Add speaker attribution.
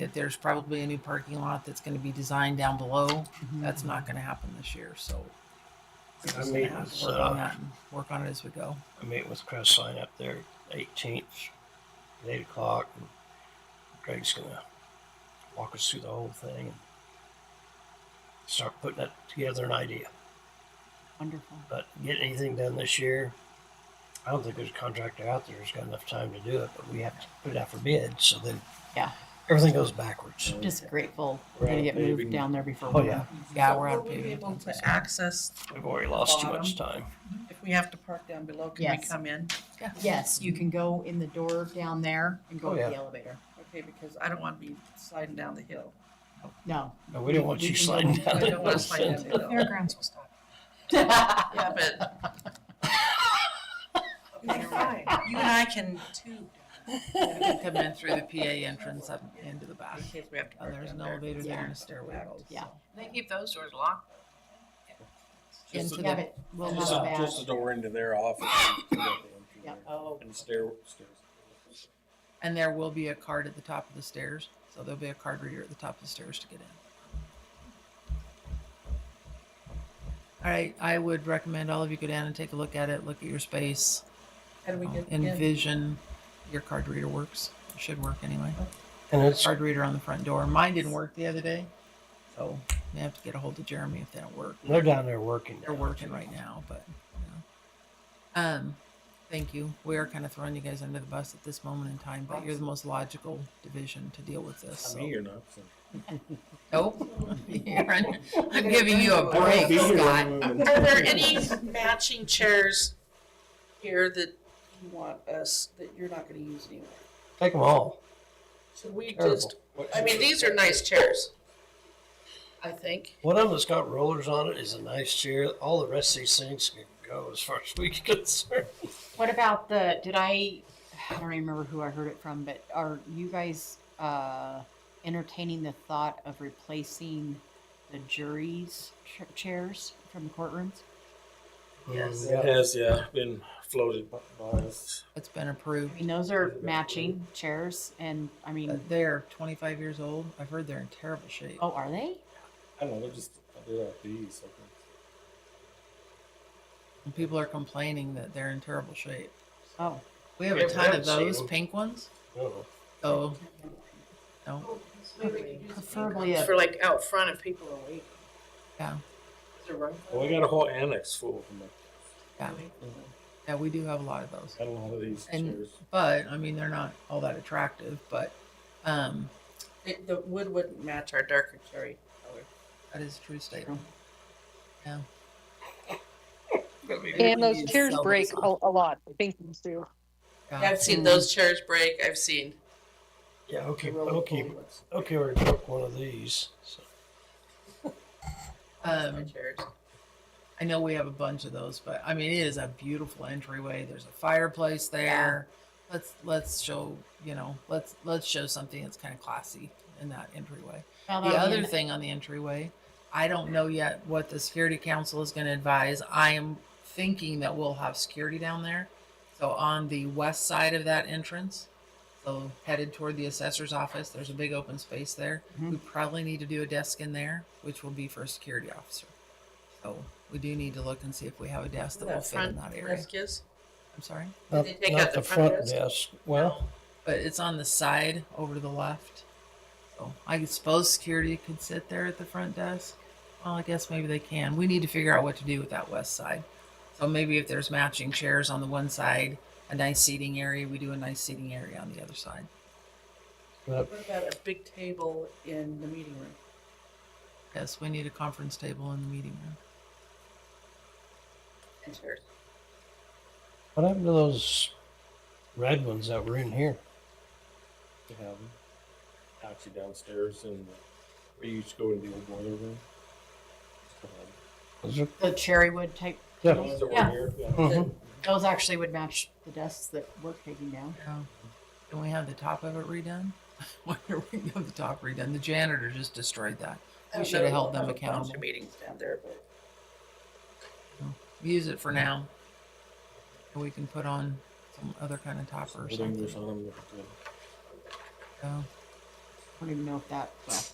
Speaker 1: Like there's probably a new parking lot that's going to be designed down below.
Speaker 2: Mm-hmm.
Speaker 1: That's not going to happen this year, so. we're
Speaker 3: I
Speaker 1: just
Speaker 3: mean,
Speaker 1: gonna have
Speaker 3: it's,
Speaker 1: to work on
Speaker 3: uh,
Speaker 1: that and Work on it as we go.
Speaker 3: I meet with Chris Sign up there eighteenth, at eight o'clock. and Greg's gonna walk us through the whole thing and start putting it together an idea.
Speaker 2: Wonderful.
Speaker 3: But get anything done this year, I don't think there's a contractor out there who's got enough time to do it, but we have to put it out for bid, so then
Speaker 2: Yeah.
Speaker 3: everything goes backwards.
Speaker 2: Just grateful we're gonna
Speaker 3: Right,
Speaker 2: get
Speaker 4: maybe.
Speaker 2: moved down there before.
Speaker 3: Oh, yeah.
Speaker 1: Yeah,
Speaker 5: So
Speaker 1: we're
Speaker 5: will
Speaker 1: out of
Speaker 5: we be able
Speaker 1: paving.
Speaker 5: to access,
Speaker 3: We've already lost too much time.
Speaker 5: if we have to park down below, can we
Speaker 2: Yes.
Speaker 5: come in?
Speaker 2: Yes, you can go in the door down there and go
Speaker 3: Oh,
Speaker 2: up
Speaker 3: yeah.
Speaker 2: the elevator.
Speaker 5: Okay, because I don't want to be sliding down the hill.
Speaker 2: No.
Speaker 3: No, we don't want
Speaker 2: We
Speaker 3: you
Speaker 2: can go
Speaker 3: sliding
Speaker 2: back.
Speaker 3: down.
Speaker 5: I
Speaker 3: that
Speaker 5: don't want to slide down
Speaker 3: hill.
Speaker 5: the hill.
Speaker 6: Fairgrounds will stop.
Speaker 5: Yeah, but
Speaker 6: Never mind. You and I can too.
Speaker 1: Come in through the PA entrance up into the back.
Speaker 5: in case we have to
Speaker 1: Uh,
Speaker 5: park
Speaker 1: there's
Speaker 5: down
Speaker 1: an
Speaker 5: there.
Speaker 1: elevator there and
Speaker 2: Yeah.
Speaker 1: a stairway goes.
Speaker 2: Yeah.
Speaker 7: They keep those doors locked.
Speaker 2: Into
Speaker 1: Into
Speaker 2: the,
Speaker 1: the-
Speaker 2: we'll
Speaker 4: Just,
Speaker 2: have a Oh.
Speaker 4: just the
Speaker 2: badge.
Speaker 4: door into their office. and you can go in
Speaker 2: Yep.
Speaker 4: there. And stair, stairs.
Speaker 1: And there will be a card at the top of the stairs, so there'll be a card reader at the top of the stairs to get in. All right, I would recommend all of you go down and take a look at it, look at your space,
Speaker 5: How do we get in?
Speaker 1: envision your card reader works. It should work anyway.
Speaker 3: And it's,
Speaker 1: Card reader on the front door. Mine didn't work the other day, so may have to get a hold of Jeremy if they don't work.
Speaker 3: they're down there working.
Speaker 1: They're
Speaker 3: now.
Speaker 1: working right now, but you know. um, thank you. We are kind of throwing you guys under the bus at this moment in time, but you're the most logical division to deal with this.
Speaker 4: I
Speaker 1: So.
Speaker 4: mean, you're not. so-
Speaker 1: Nope. Aaron, I'm giving you a break,
Speaker 4: Be here
Speaker 1: Scott.
Speaker 4: when we-
Speaker 5: Are there any matching chairs here that you want us, that you're not going to use anyway?
Speaker 3: Take them all.
Speaker 5: Should we
Speaker 3: Terrible.
Speaker 5: just, I mean, these are nice chairs. I think.
Speaker 3: One of them that's got rollers on it is a nice chair. All the rest of these things can go as far as we can concern.
Speaker 2: What about the, did I, I don't remember who I heard it from, but are you guys, uh, entertaining the thought of replacing the jury's ch- chairs from courtrooms?
Speaker 5: Yes.
Speaker 4: It has, yeah, been floated by by us.
Speaker 1: It's been
Speaker 2: I
Speaker 1: approved.
Speaker 2: mean, those are matching chairs and, I
Speaker 1: Uh,
Speaker 2: mean,
Speaker 1: They're 25 years old. I've heard they're in terrible shape.
Speaker 2: oh, are they?
Speaker 4: I don't know, they're just, they're like these, I think.
Speaker 1: And people are complaining that they're in terrible shape.
Speaker 2: Oh.
Speaker 1: We have
Speaker 3: Yeah,
Speaker 1: a
Speaker 3: we
Speaker 1: ton of
Speaker 3: haven't seen
Speaker 1: those
Speaker 3: them.
Speaker 1: pink ones.
Speaker 3: No.
Speaker 1: Oh, no.
Speaker 2: Preferably a
Speaker 5: For like out front if people are waiting.
Speaker 1: Yeah.
Speaker 5: Is there room?
Speaker 4: Well, we got a whole annex full of them.
Speaker 1: Yeah. Yeah, we do have a lot of those.
Speaker 4: I don't know how these
Speaker 1: And-
Speaker 4: chairs.
Speaker 1: But, I mean, they're not all that attractive, but um,
Speaker 5: It- The wood wouldn't match our darker cherry color.
Speaker 1: that is a true statement.
Speaker 8: And those
Speaker 1: Please
Speaker 8: chairs
Speaker 1: sell
Speaker 8: break
Speaker 1: those
Speaker 8: a, a lot. I think these do.
Speaker 1: Yeah.
Speaker 5: I've seen those chairs break. I've seen.
Speaker 3: Yeah, okay,
Speaker 5: the roller
Speaker 3: okay,
Speaker 5: coaster ones.
Speaker 3: okay, we broke one of these. So.
Speaker 1: Um,
Speaker 5: Chairs.
Speaker 1: I know we have a bunch of those, but I mean, it is a beautiful entryway. There's a fireplace there. Let's let's show you know let's let's show something that's kind of classy in that entryway.
Speaker 2: Well,
Speaker 1: The
Speaker 2: that'll be
Speaker 1: other
Speaker 2: in-
Speaker 1: thing on the entryway, I don't know yet what the security council is going to advise. I am thinking that we'll have security down there, so on the west side of that entrance, so headed toward the assessor's office. There's a big open space there.
Speaker 5: Mm-hmm.
Speaker 1: We probably need to do a desk in there, which will be for a security officer. So we do need to look and see if we have a desk that will
Speaker 5: That
Speaker 1: fit in
Speaker 5: front
Speaker 1: that area.
Speaker 5: desk is.
Speaker 1: I'm sorry,
Speaker 3: Not,
Speaker 5: they take
Speaker 3: not
Speaker 5: out
Speaker 3: the
Speaker 5: the front
Speaker 3: front
Speaker 5: desk?
Speaker 3: desk. Well,
Speaker 1: but it's on the side over to the left. So I suppose security could sit there at the front desk. Well, I guess maybe they can. We need to figure out what to do with that west side. So maybe if there's matching chairs on the one side, a nice seating area, we do a nice seating area on the other side.
Speaker 3: but
Speaker 5: What about a big table in the meeting room?
Speaker 1: Yes, we need a conference table in the meeting room.
Speaker 5: And chairs.
Speaker 3: what happened to those red ones that were in here?
Speaker 4: to have them. Actually downstairs in the, we used to go into the old boiler room.
Speaker 3: Those are,
Speaker 2: The cherry wood type,
Speaker 4: The
Speaker 3: yeah.
Speaker 4: ones that were
Speaker 2: Yeah.
Speaker 4: here, yeah.
Speaker 3: Mhm.
Speaker 2: those actually would match the desks that we're taking down.
Speaker 1: Yeah. Can we have the top of it redone? Why are we gonna have the top redone? The janitor just destroyed that. We
Speaker 5: I Oh, don't
Speaker 1: should have
Speaker 5: know,
Speaker 1: held them
Speaker 5: a bunch of
Speaker 1: accountable.
Speaker 5: Meetings down there, but
Speaker 1: Use it for now. And we can put on some other kind of topper or
Speaker 4: Old English
Speaker 1: something.
Speaker 4: on them, looked good.
Speaker 1: Yeah.
Speaker 2: don't even know if that, well.